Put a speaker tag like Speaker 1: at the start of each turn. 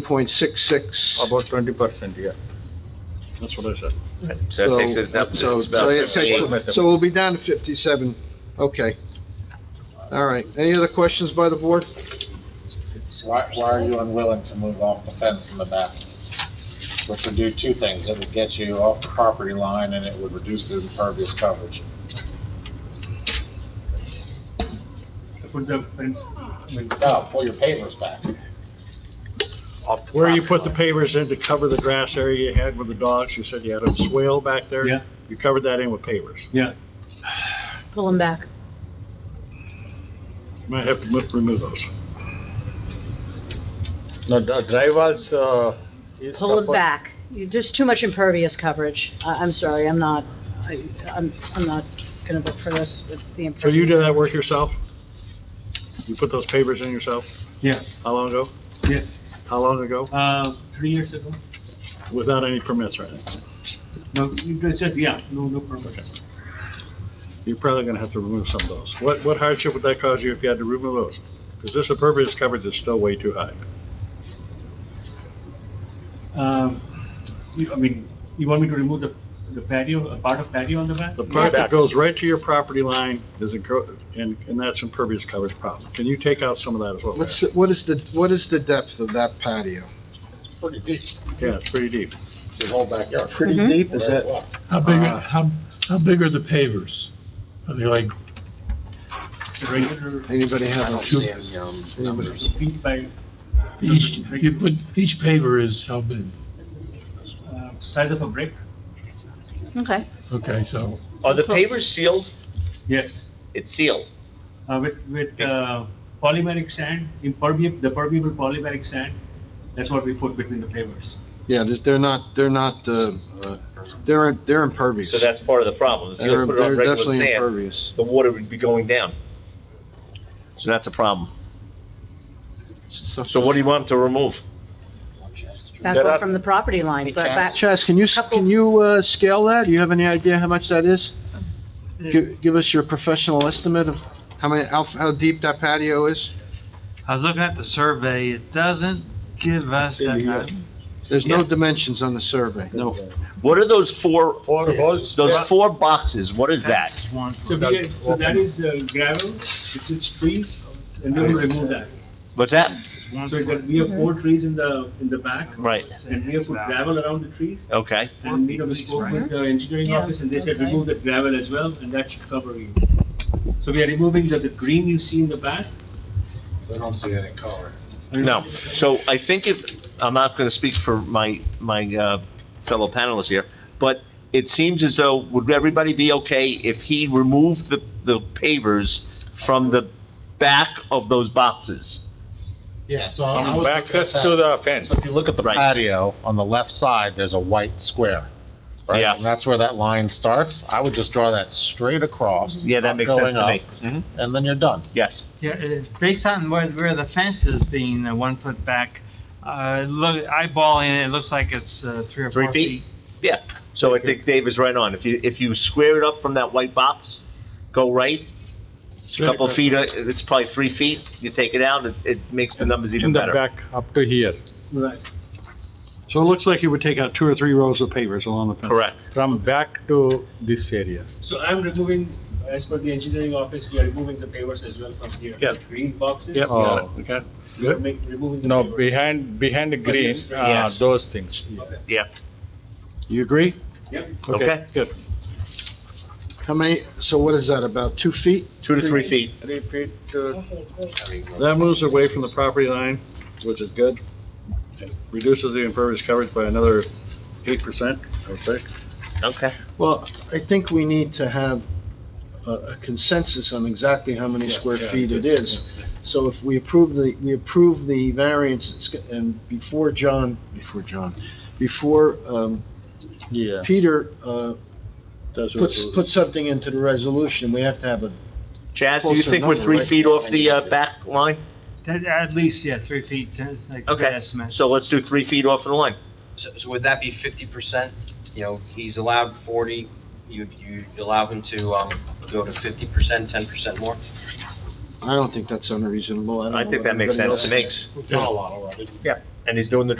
Speaker 1: point six six.
Speaker 2: Oh,
Speaker 3: About twenty percent, yeah.
Speaker 4: That's what I said.
Speaker 2: So that takes it up to
Speaker 1: So,
Speaker 2: it's about
Speaker 1: so it
Speaker 2: fifty-eight.
Speaker 1: takes- so we'll be down to fifty-seven, okay. All right, any other questions by the board?
Speaker 5: Why, why are you unwilling to move off the fence in the back? Which would do two things, it would get you off the property line and it would reduce the impervious coverage.
Speaker 6: Put the fence, I mean,
Speaker 5: No, pull your pavers back.
Speaker 4: Where you put the pavers in to cover the grass area you had with the dogs, you said you had a swale back there?
Speaker 6: Yeah.
Speaker 4: You covered that in with pavers.
Speaker 6: yeah,
Speaker 7: pull them back.
Speaker 4: Might have to mo- remove those.
Speaker 3: No, the dry walls, uh, is.
Speaker 7: Pull it
Speaker 3: proposed-
Speaker 7: back. You- There's too much impervious coverage. I, I'm sorry, I'm not, I, I'm, I'm not gonna vote for this with the
Speaker 4: So you
Speaker 7: impervious.
Speaker 4: did that work yourself? You put those pavers in yourself?
Speaker 6: yeah,
Speaker 4: How long ago?
Speaker 6: yes.
Speaker 4: How long ago?
Speaker 6: Uh, three years ago?
Speaker 4: Without any permits or anything?
Speaker 6: No, you just said, yeah, no, no permits.
Speaker 4: You're probably gonna have to remove some of those. What, what hardship would that cause you if you had to remove those? Because this impervious coverage is still way too high.
Speaker 6: Um, you- I mean, you want me to remove the, the patio, a part of patio on the back?
Speaker 4: The part that goes right to your property line is, encro- and, and that's impervious coverage problem. Can you take out some of that as well?
Speaker 1: What's, what is the, what is the depth of that patio?
Speaker 5: It's pretty deep,
Speaker 4: Yeah, it's pretty deep.
Speaker 5: it's your whole backyard.
Speaker 7: Pretty Mhm.
Speaker 5: deep,
Speaker 1: is that-
Speaker 8: How big,
Speaker 4: Uh,
Speaker 8: are- how, how big are the pavers? Are they like
Speaker 6: It's a regular,
Speaker 1: Anybody
Speaker 5: I
Speaker 1: have a
Speaker 5: don't see any, um, numbers.
Speaker 6: feet by,
Speaker 8: each, you put, each paver is how big?
Speaker 6: uh, size of a brick?
Speaker 7: Okay.
Speaker 8: Okay, so,
Speaker 2: Are the pavers sealed?
Speaker 6: Yes.
Speaker 2: It's sealed.
Speaker 6: Uh, with, with, uh, polymeric sand, impermeable, the permeable polymeric sand, that's what we put between the pavers.
Speaker 1: Yeah, they're- they're not, they're not, uh, uh, they're, they're impervious.
Speaker 2: So that's part of the problem. If you
Speaker 1: They're
Speaker 2: put it on
Speaker 1: they're
Speaker 2: regular
Speaker 1: definitely
Speaker 2: sand,
Speaker 1: impervious.
Speaker 2: the water would be going down. So that's a problem. So what do you want to remove?
Speaker 7: Back
Speaker 2: Get
Speaker 7: up
Speaker 2: up.
Speaker 7: from the property line, but back,
Speaker 1: Chaz, can you, s-
Speaker 7: Couple-
Speaker 1: can you, uh, scale that? Do you have any idea how much that is?
Speaker 4: Hmm.
Speaker 1: Gi- Give us your professional estimate of how many, how, how deep that patio is?
Speaker 9: I was looking at the survey, it doesn't give us that much.
Speaker 1: There's no
Speaker 2: Yeah.
Speaker 1: dimensions on the survey.
Speaker 2: No. What are those four,
Speaker 3: Four holes. yeah.
Speaker 2: those four boxes? What is that?
Speaker 9: One.
Speaker 6: So we, get- so that is uh, gravel, it's, it's trees, and we will remove that.
Speaker 2: What's that?
Speaker 9: one-
Speaker 6: So that we have four trees in the, in the back,
Speaker 2: Right,
Speaker 6: and we have put gravel around the trees,
Speaker 2: okay.
Speaker 6: and we have spoke with the engineering
Speaker 7: Yeah,
Speaker 6: office, and they said
Speaker 7: that's right.
Speaker 6: remove the gravel as well, and that should cover you. So we are removing the, the green you see in the back.
Speaker 5: They don't see any color.
Speaker 2: No, so I think if, I'm not gonna speak for my, my, uh, fellow panelists here, but it seems as though, would everybody be okay if he removed the, the pavers from the back of those boxes?
Speaker 5: Yeah, so I
Speaker 3: From
Speaker 5: was.
Speaker 3: the
Speaker 5: looking at
Speaker 3: access
Speaker 5: that.
Speaker 3: to the fence.
Speaker 5: So If you look at the
Speaker 2: Right.
Speaker 5: patio, on the left side, there's a white square. right?
Speaker 2: Yeah.
Speaker 5: And that's where that line starts. I would just draw that straight across.
Speaker 2: Yeah, that
Speaker 5: not
Speaker 2: makes sense to
Speaker 5: going
Speaker 2: me.
Speaker 5: up, Mm-hmm.
Speaker 2: Mhm.
Speaker 5: And then you're done.
Speaker 2: Yes,
Speaker 9: Yeah, it- based on where, where the fence is being, uh one foot back, uh, look, eyeballing it, it looks like it's, uh, three or
Speaker 2: Three
Speaker 9: four
Speaker 2: feet?
Speaker 9: feet.
Speaker 2: yeah, so I think Dave is right on. If you, if you square it up from that white box, go right, a couple of feet, uh, it's probably three feet, you take it out, it, it makes the numbers
Speaker 3: In
Speaker 2: even
Speaker 3: the
Speaker 2: better.
Speaker 3: back, up to here,
Speaker 6: Right.
Speaker 4: So it looks like you would take out two or three rows of pavers along the fence.
Speaker 2: Correct.
Speaker 3: from back to this area.
Speaker 6: So I'm removing, as per the engineering office, we are removing the pavers as well from here.
Speaker 4: Yeah.
Speaker 6: Green boxes.
Speaker 4: Yep, got
Speaker 3: Oh.
Speaker 4: it, okay.
Speaker 6: We are make- removing the
Speaker 3: No,
Speaker 6: pavers.
Speaker 3: behind, behind the green, uh,
Speaker 2: Yes.
Speaker 3: those things.
Speaker 6: Okay.
Speaker 2: Yeah,
Speaker 4: You agree?
Speaker 6: Yep.
Speaker 2: Okay.
Speaker 4: Good.
Speaker 1: How many, so what is that, about two feet?
Speaker 2: two to three feet.
Speaker 3: Three feet, uh,
Speaker 4: That moves away from the property line, which is good. Reduces the impervious coverage by another eight percent, I would say.
Speaker 2: Okay.
Speaker 1: Well, I think we need to have a- a consensus on exactly how many
Speaker 4: Yeah,
Speaker 1: square
Speaker 4: yeah,
Speaker 1: feet it
Speaker 4: yeah,
Speaker 1: is. So if we approve the, we approve the variance, it's go- and before John, before John, before um,
Speaker 3: Yeah.
Speaker 1: Peter uh,
Speaker 4: That's what
Speaker 1: puts,
Speaker 4: it-
Speaker 1: puts something into the resolution, we have to have a,
Speaker 2: Chaz, do you
Speaker 1: Closer
Speaker 2: think we're
Speaker 1: number,
Speaker 2: three
Speaker 1: right?
Speaker 2: feet off the uh, back line?
Speaker 9: That- At least, yeah, three feet, it's like a good
Speaker 2: Okay,
Speaker 9: estimate.
Speaker 2: so let's do three feet off the line.
Speaker 10: So, so would that be fifty percent? You know, he's allowed forty, you, you allow him to, um, go to fifty percent, ten percent more?
Speaker 1: I don't think that's unreasonable. don't
Speaker 2: I
Speaker 1: know
Speaker 2: think
Speaker 1: what
Speaker 2: that makes
Speaker 1: anybody
Speaker 2: sense
Speaker 1: else
Speaker 2: to me.
Speaker 5: We've done a lot already.
Speaker 2: And he's doing the